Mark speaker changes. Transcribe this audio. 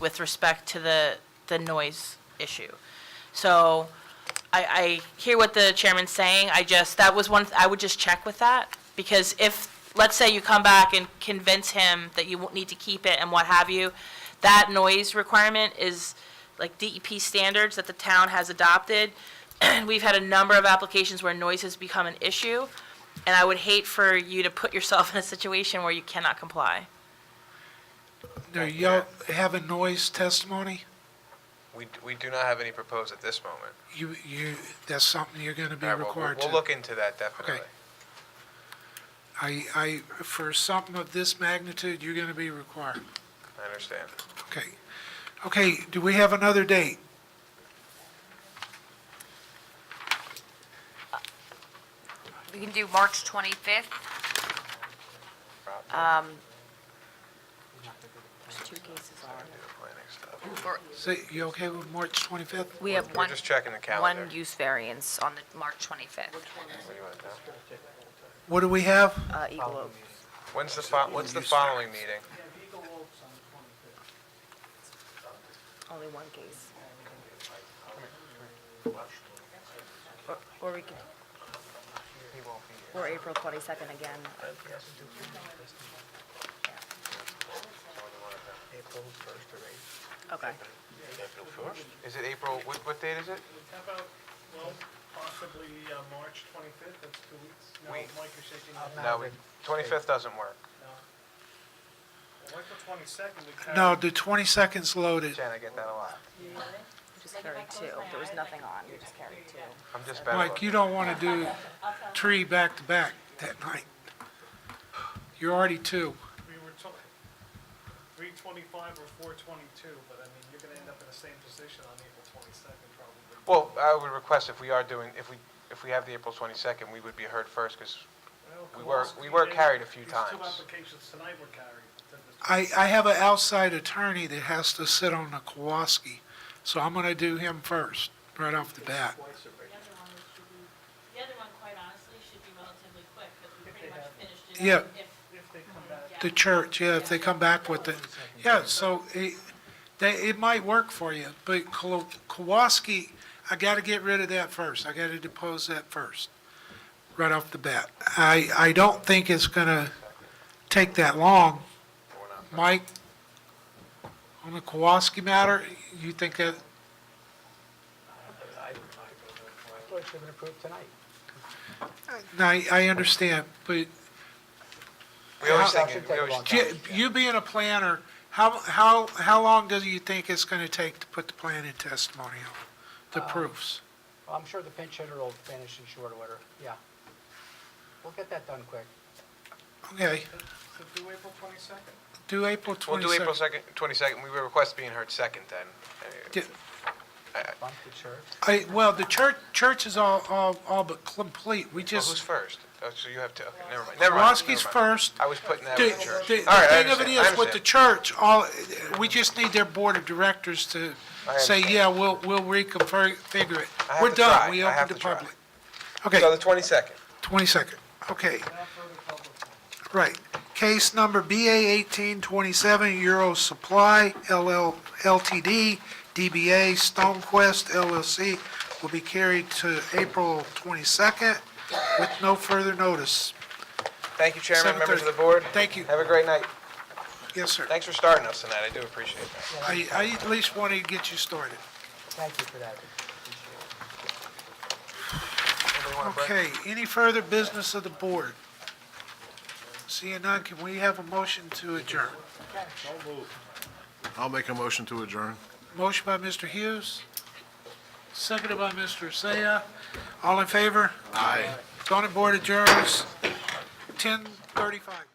Speaker 1: with respect to the, the noise issue. So I, I hear what the chairman's saying, I just, that was one, I would just check with that, because if, let's say you come back and convince him that you won't need to keep it and what have you, that noise requirement is like DEP standards that the town has adopted. We've had a number of applications where noise has become an issue, and I would hate for you to put yourself in a situation where you cannot comply.
Speaker 2: Now, y'all have a noise testimony?
Speaker 3: We, we do not have any proposed at this moment.
Speaker 2: You, you, that's something you're gonna be
Speaker 3: All right, well,
Speaker 2: required
Speaker 3: We'll
Speaker 2: to.
Speaker 3: we'll look into that definitely.
Speaker 2: I, I, for something of this magnitude, you're gonna be required.
Speaker 3: I understand.
Speaker 2: Okay. Okay, do we have another date?
Speaker 4: We can do March 25th.
Speaker 3: Rob,
Speaker 4: Um, Two cases
Speaker 3: do the planning stuff.
Speaker 2: Say, you okay with March 25th?
Speaker 4: We have
Speaker 3: We're
Speaker 4: one,
Speaker 3: just checking the calendar.
Speaker 4: one use variance on the March 25th.
Speaker 3: What do you want to know?
Speaker 2: What do we have?
Speaker 4: Uh, Eagle Oak.
Speaker 3: When's the, fo- when's the following meeting?
Speaker 4: Only one case. Or we could, or April 22nd again. Okay.
Speaker 3: Is it April, what, what date is it?
Speaker 5: How about, well, possibly uh, March 25th, that's two weeks? No,
Speaker 3: Wait. Uh,
Speaker 5: Mike, you're shaking your head.
Speaker 3: No, we- 25th doesn't work.
Speaker 5: Well, April 22nd, we carry...
Speaker 2: No, the 22nd's loaded.
Speaker 3: Jen, I get that a lot.
Speaker 4: Just carried two. There was nothing on. We just carried two.
Speaker 3: I'm just better
Speaker 2: Mike,
Speaker 3: looking.
Speaker 2: you don't wanna do three back-to-back that night. You're already two.
Speaker 5: We were told 325 or 422, but I mean, you're going to end up in the same position on April 22nd, probably.
Speaker 3: Well, I would request if we are doing, if we, if we have the April 22nd, we would be heard first because
Speaker 5: Well,
Speaker 3: We were-
Speaker 5: Kowalski
Speaker 3: we were
Speaker 5: did-
Speaker 3: carried a few
Speaker 5: These two
Speaker 3: times.
Speaker 5: applications tonight were carried. to the-
Speaker 2: I, I have an outside attorney that has to sit on the Kowalski, so I'm gonna do him first, right off the bat.
Speaker 6: The other one is should be, the other one, quite honestly, should be relatively quick, because we pretty much finished it.
Speaker 2: Yeah.
Speaker 6: If,
Speaker 5: If they come back,
Speaker 2: The church, yeah, if they come back with it. Yeah, so it, they, it might work for you, but Kolo- Kowalski, I gotta get rid of that first. I gotta depose that first, right off the bat. I, I don't think it's gonna take that long. Mike, on the Kowalski matter, you think that,
Speaker 7: Well, it should have been approved tonight.
Speaker 2: no, I, I understand, but
Speaker 3: we always
Speaker 7: Yeah.
Speaker 3: think, it- we always,
Speaker 2: Ju- You being a planner, how, how, how long do you think it's gonna take to put the plan in testimonial, the
Speaker 3: Uh,
Speaker 2: proofs?
Speaker 7: Well, I'm sure the pinch hitter will finish in short order, yeah. We'll get that done quick.
Speaker 2: Okay,
Speaker 5: so do April 22nd.
Speaker 2: do April
Speaker 3: we'll do April
Speaker 2: 22nd.
Speaker 3: 2nd, 22nd. We would request being heard second then. Uh,
Speaker 2: Do-
Speaker 7: Bump the church.
Speaker 2: I, well, the church, church is all, all, all but complete, we
Speaker 3: Well, who's
Speaker 2: just,
Speaker 3: first? Oh, so you have to, okay, never mind, never mind.
Speaker 2: Roski's
Speaker 3: never mind.
Speaker 2: first.
Speaker 3: I was putting that
Speaker 2: The,
Speaker 3: with the church.
Speaker 2: the-
Speaker 3: All right,
Speaker 2: the
Speaker 3: I
Speaker 2: thing of it
Speaker 3: understand, I
Speaker 2: is, with the
Speaker 3: understand.
Speaker 2: church, all, we just need their board of directors to
Speaker 3: I
Speaker 2: say,
Speaker 3: understand.
Speaker 2: yeah, we'll, we'll reconfigure it.
Speaker 3: I have
Speaker 2: We're
Speaker 3: to
Speaker 2: done,
Speaker 3: try.
Speaker 2: we
Speaker 3: I have
Speaker 2: opened the
Speaker 3: to try.
Speaker 2: public. Okay.
Speaker 3: So the 22nd.
Speaker 2: 22nd, okay. Right. Case number BA 1827, Euro Supply LL Ltd., DBA Stonequest LLC will be carried to April 22nd with no further notice.
Speaker 3: Thank you, Chairman, members of the
Speaker 2: 7:30.
Speaker 3: board.
Speaker 2: Thank you.
Speaker 3: Have a great night.
Speaker 2: Yes, sir.
Speaker 3: Thanks for starting us tonight, I do appreciate that.
Speaker 2: I I at least wanted to get you started.
Speaker 7: Thank you for that. Appreciate it.
Speaker 3: Anybody want a break?
Speaker 2: Okay, any further business of the board? Seeing none, can we have a motion to adjourn?
Speaker 8: I'll make a motion to adjourn.
Speaker 2: Motion by Mr. Hughes, seconded by Mr. Seiya. All in favor?
Speaker 8: Aye.
Speaker 2: Zoning Board adjourns 10:35.